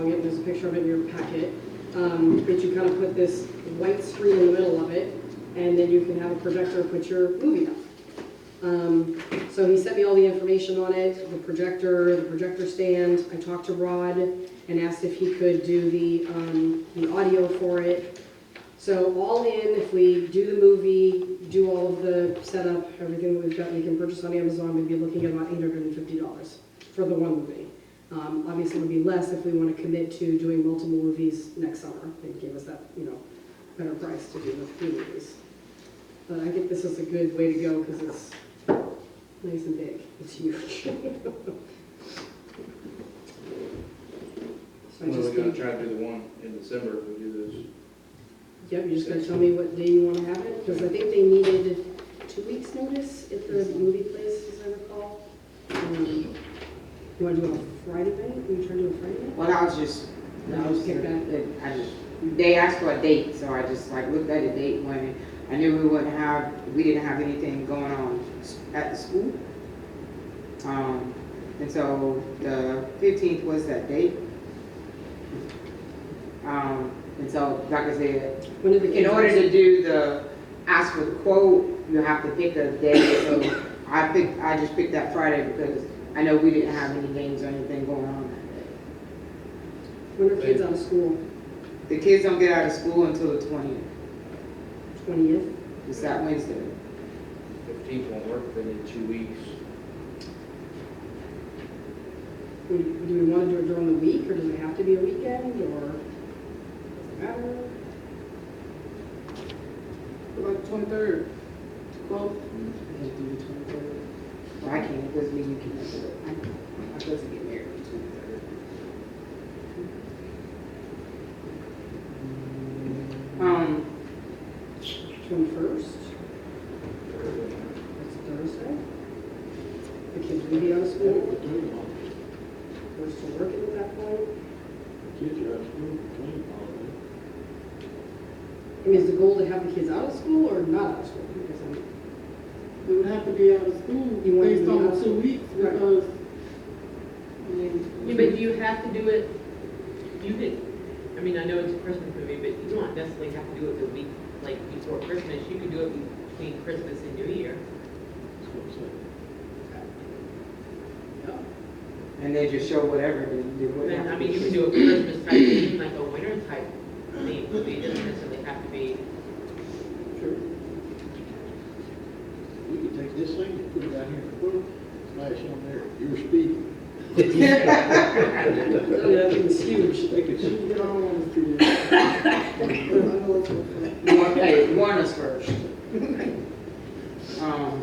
a picture of it in your packet, um, that you kind of put this white screen in the middle of it, and then you can have a projector put your movie up. Um, So he sent me all the information on it, the projector, the projector stand. I talked to Rod and asked if he could do the, um, the audio for it. So all in, if we do the movie, do all of the setup, everything that we've got, we can purchase on Amazon, we'd be looking at about eight hundred and fifty dollars for the one movie. Um, obviously, it would be less if we want to commit to doing multiple movies next summer. They'd give us that, you know, better price to do the three movies. But I think this is a good way to go because it's nice and big. It's huge. So I Well, just we're gonna need- try to do the one in December, if we do this. Yep, you're just gonna tell me what day you wanna have it, because I think they needed two weeks' notice at the movie place, as I recall. Um, You wanna do it on Friday night, you try to do it Friday night? Well, I was just, No, I just was pick that. I just, they asked for a date, so I just like looked at a date when I knew we wouldn't have, we didn't have anything going on s- at the school. Um, and so the fifteenth was that date. Um, and so, like I said, When did the in kids? order to do the, ask for the quote, you have to pick a date, so I picked, I just picked that Friday because I know we didn't have any games or anything going on that day. When are kids out of school? The kids don't get out of school until the twentieth. Twentieth? It's that Wednesday. Fifteenth won't work, they need two weeks. Do we wanna do it during the week, or does it have to be a weekend, or? Matter? Like twenty-third, twelve, Well, I can't, because we, you can, I'm supposed to get married on the twenty-third. Um, Twenty-first? That's Thursday? The kids will be out of school, we're still working at that point. I mean, is the goal to have the kids out of school or not out of school? Because I'm- we would have to be out of school You want based to be out on of the school. two weeks Right. because, I mean. Yeah, but you have to do it, you could, I mean, I know it's a Christmas movie, but you don't necessarily have to do it the week, like, before Christmas, you could do it between Christmas and New Year. and then just show whatever, and do Then, whatever. I mean, you could do a Christmas type theme, like a winter type theme, movie, it doesn't necessarily have to be, We could take this thing and put it out here in the book, smash on there, you're speeding. Yeah, it's huge. They could see. I don't want to see that. I know it's a fact. Warn, hey, warn us first. Um,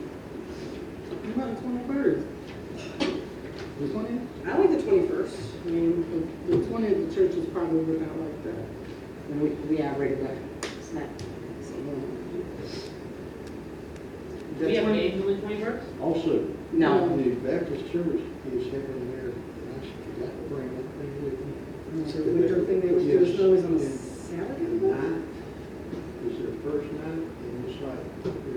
You want the twenty-first, The twentieth? I like the twenty-first. I mean, the twentieth, the church is probably working out like that. we, we already got, it's not, it's a little- The we have 20 games on the twenty-first? Also, No. the Baptist church is having their, and I should forgot to bring that thing with me. it's a winter thing they would do, it's always on a Yes. Saturday. I think? It's their first night, and it's like.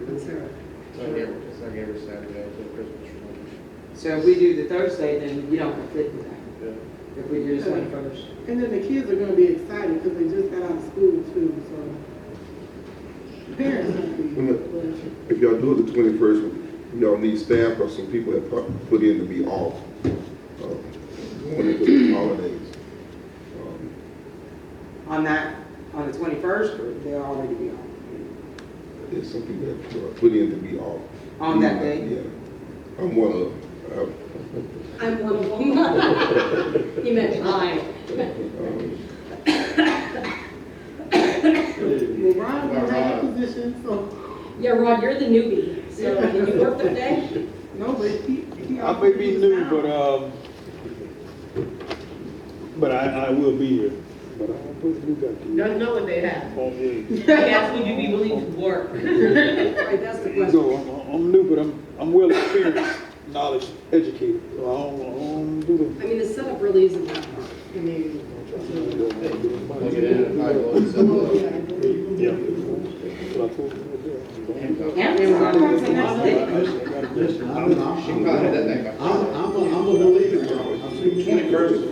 On Saturday. It's like every, it's like every Saturday until Christmas. or So if we do the Thursday, then we don't conflict with that, something. if we do the twenty-first. And then the kids are gonna be excited because they just got out of school too, so. Parents might be, but- If y'all do it the twenty-first, y'all need staff or some people that put- put in to be off, uh, going into the holidays. Um, On that, on the twenty-first, they'll already be on. There's some people that uh, put in to be off. On that day? Yeah. I'm one of, them. I'm one of them. He meant I. Uh, um, Well, Ron can have a position, so, Yeah, Rod, you're the newbie, so can you work the day? no, but he, he. Uh, I may be new, but, um, but I, I will be here. But I don't put you got to. Don't know what they have. Oh, yeah. That's when you be willing to work. Right, that's the question. So I'm, I'm new, but I'm, I'm well experienced, knowledge educated, so I don't, I don't do the I mean, the setup really isn't that hard. I mean, Look at that, I will accept Yeah. What I told you that. Amazon is the next day. Listen, I'm, I'm, I'm, She probably did that back. I'm, I'm a believer, bro. I'm first